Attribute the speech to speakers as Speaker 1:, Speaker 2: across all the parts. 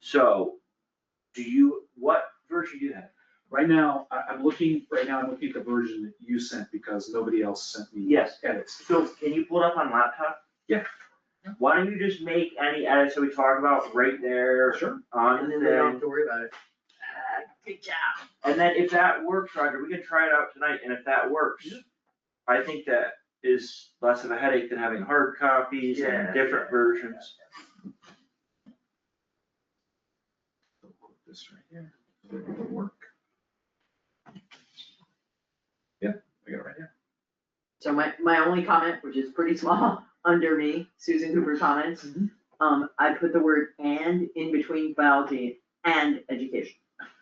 Speaker 1: So, do you, what version do you have?
Speaker 2: Right now, I, I'm looking, right now, I'm looking at the version that you sent because nobody else sent me
Speaker 1: Yes.
Speaker 2: edits.
Speaker 1: So can you pull it up on laptop?
Speaker 2: Yeah.
Speaker 1: Why don't you just make any edits that we talk about right there
Speaker 2: Sure.
Speaker 1: on
Speaker 3: And then we don't
Speaker 1: the
Speaker 3: have to worry about it.
Speaker 1: Good job. And then if that works, Roger, we can try it out tonight, and if that works, I think that is less of a headache than having hard copies
Speaker 3: Yeah.
Speaker 1: and different versions.
Speaker 2: This right here, It'll work. Yeah, I got it right here.
Speaker 3: So my, my only comment, which is pretty small, under me, Susan Cooper comments,
Speaker 1: Mm-hmm.
Speaker 2: Mhm.
Speaker 3: um, I put the word and in between biology and education.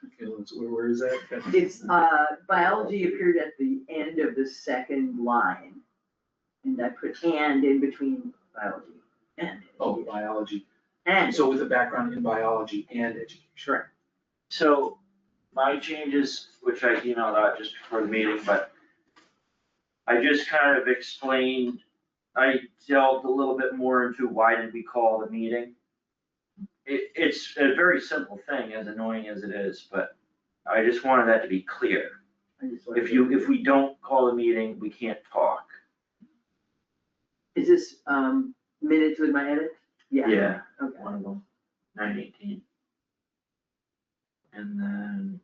Speaker 2: Okay, let's- where- where is that?
Speaker 3: It's, uh, biology appeared at the end of the second line. And I put and in between biology and,
Speaker 2: Oh, biology.
Speaker 3: and,
Speaker 2: So with a background in biology and education.
Speaker 3: sure,
Speaker 1: So my changes, which I emailed out just before the meeting, but I just kind of explained, I delved a little bit more into why did we call the meeting. It, it's a very simple thing, as annoying as it is, but I just wanted that to be clear.
Speaker 3: I just wanted
Speaker 1: If
Speaker 3: to-
Speaker 1: you, if we don't call the meeting, we can't talk.
Speaker 3: Is this, um, minutes with my edit? Yeah.
Speaker 1: Yeah,
Speaker 3: Okay.
Speaker 1: one of them, nine eighteen. And then.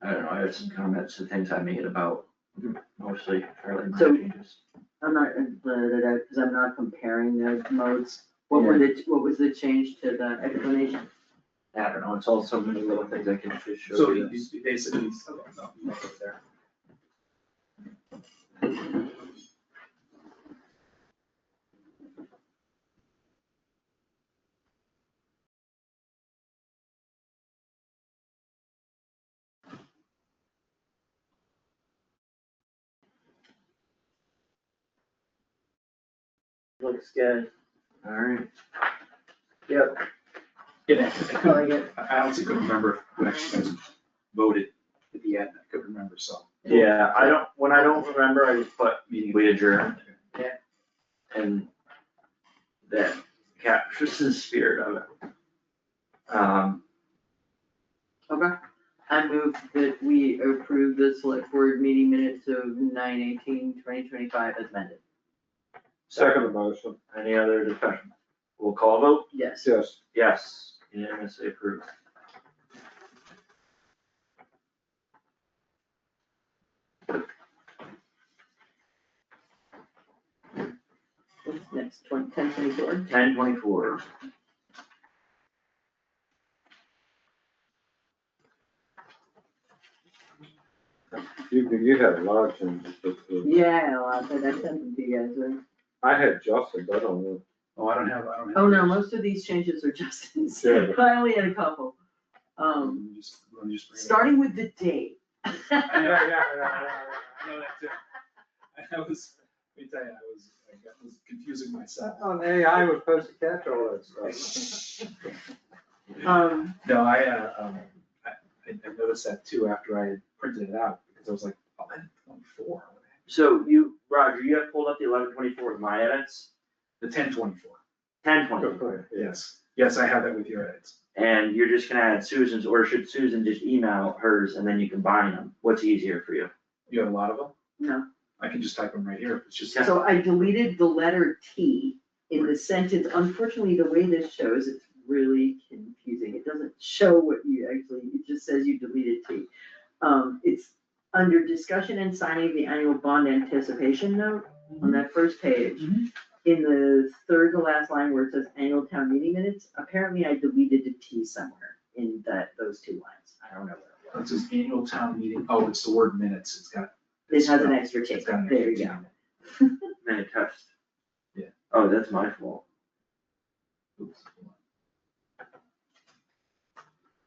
Speaker 1: I don't know, I have some comments and things I made about mostly fairly
Speaker 3: So-
Speaker 1: minor changes.
Speaker 3: I'm not, because uh, I'm not comparing those modes. What were the, what was the change to the explanation?
Speaker 1: I don't know, it's all so many little things I can just
Speaker 2: So
Speaker 1: show
Speaker 2: you
Speaker 1: you.
Speaker 2: you basically, okay, no, no, it's there.
Speaker 1: Looks good. Alright.
Speaker 2: Yeah, I
Speaker 3: I
Speaker 2: couldn't- I honestly couldn't remember who actually voted at the end, I couldn't remember, so.
Speaker 1: Yeah, I don't, when I don't remember, I just put meeting we adjourn.
Speaker 3: Yeah.
Speaker 1: And that captures the spirit of it. Um,
Speaker 3: Okay, I move that we approve the select board meeting minutes of nine eighteen twenty twenty-five as amended.
Speaker 4: Second motion,
Speaker 1: any other discussion? We'll call vote?
Speaker 3: Yes.
Speaker 4: yes.
Speaker 1: Yes, unanimously approved.
Speaker 3: What's next, twenty, ten twenty-four?
Speaker 1: Ten twenty-four.
Speaker 4: You, you had lots and
Speaker 3: Yeah, I sent them to you guys, right?
Speaker 4: I had Justin, but I don't know.
Speaker 2: Oh, I don't have, I don't have.
Speaker 3: Oh, no, most of these changes are Justin's,
Speaker 4: Yeah.
Speaker 3: I only had a couple. Um,
Speaker 2: Um, just- let me just bring it up.
Speaker 3: starting with the date.
Speaker 2: I know, yeah, yeah, yeah, yeah, I know that too. I was, let me tell you, I was, I got- was confusing myself.
Speaker 4: On AI, we're supposed to catch all that stuff.
Speaker 3: Um,
Speaker 2: No, I, uh, um, I, I I noticed that too after I had printed it out, because I was like, oh, I didn't put on four.
Speaker 1: So you, Roger, you have pulled up the eleven twenty-four with my edits,
Speaker 2: The ten twenty-four,
Speaker 1: ten
Speaker 4: Go
Speaker 1: twenty,
Speaker 4: for it, yeah.
Speaker 2: yes, yes, I have that with your edits.
Speaker 1: and you're just gonna add Susan's, or should Susan just email hers and then you combine them? What's easier for you?
Speaker 2: You have a lot of them?
Speaker 3: No.
Speaker 2: I can just type them right here, if it's just.
Speaker 3: so I deleted the letter T in the sentence, unfortunately, the way this shows, it's really confusing, it doesn't show what you actually, it just says you deleted T. Um, it's under discussion and signing of the annual bond anticipation note on that first page.
Speaker 2: Mhm.
Speaker 3: In the third to last line where it says annual town meeting minutes, apparently I deleted the T somewhere in that, those two lines, I don't know where it was.
Speaker 2: It says annual town meeting, oh, it's the word minutes, it's got.
Speaker 3: This has an extra T,
Speaker 2: It's got an
Speaker 3: there you
Speaker 2: extra
Speaker 3: go.
Speaker 2: T in it.
Speaker 1: Then it touched.
Speaker 2: Yeah.
Speaker 1: Oh, that's my fault.
Speaker 2: Oops, hold on.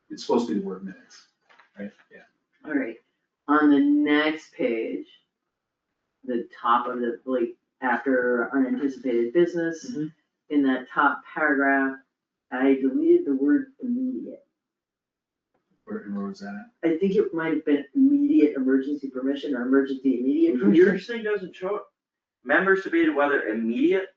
Speaker 2: It's supposed to be the word minutes, right? Yeah.
Speaker 3: Alright, on the next page, the top of the, like, after unanticipated business,
Speaker 2: Mhm.
Speaker 3: in that top paragraph, I deleted the word immediate.
Speaker 2: Where, and where was that at?
Speaker 3: I think it might have been immediate emergency
Speaker 1: Mm-hmm.
Speaker 3: permission or emergency immediate permission.
Speaker 1: Your thing doesn't show, it. members debated whether immediate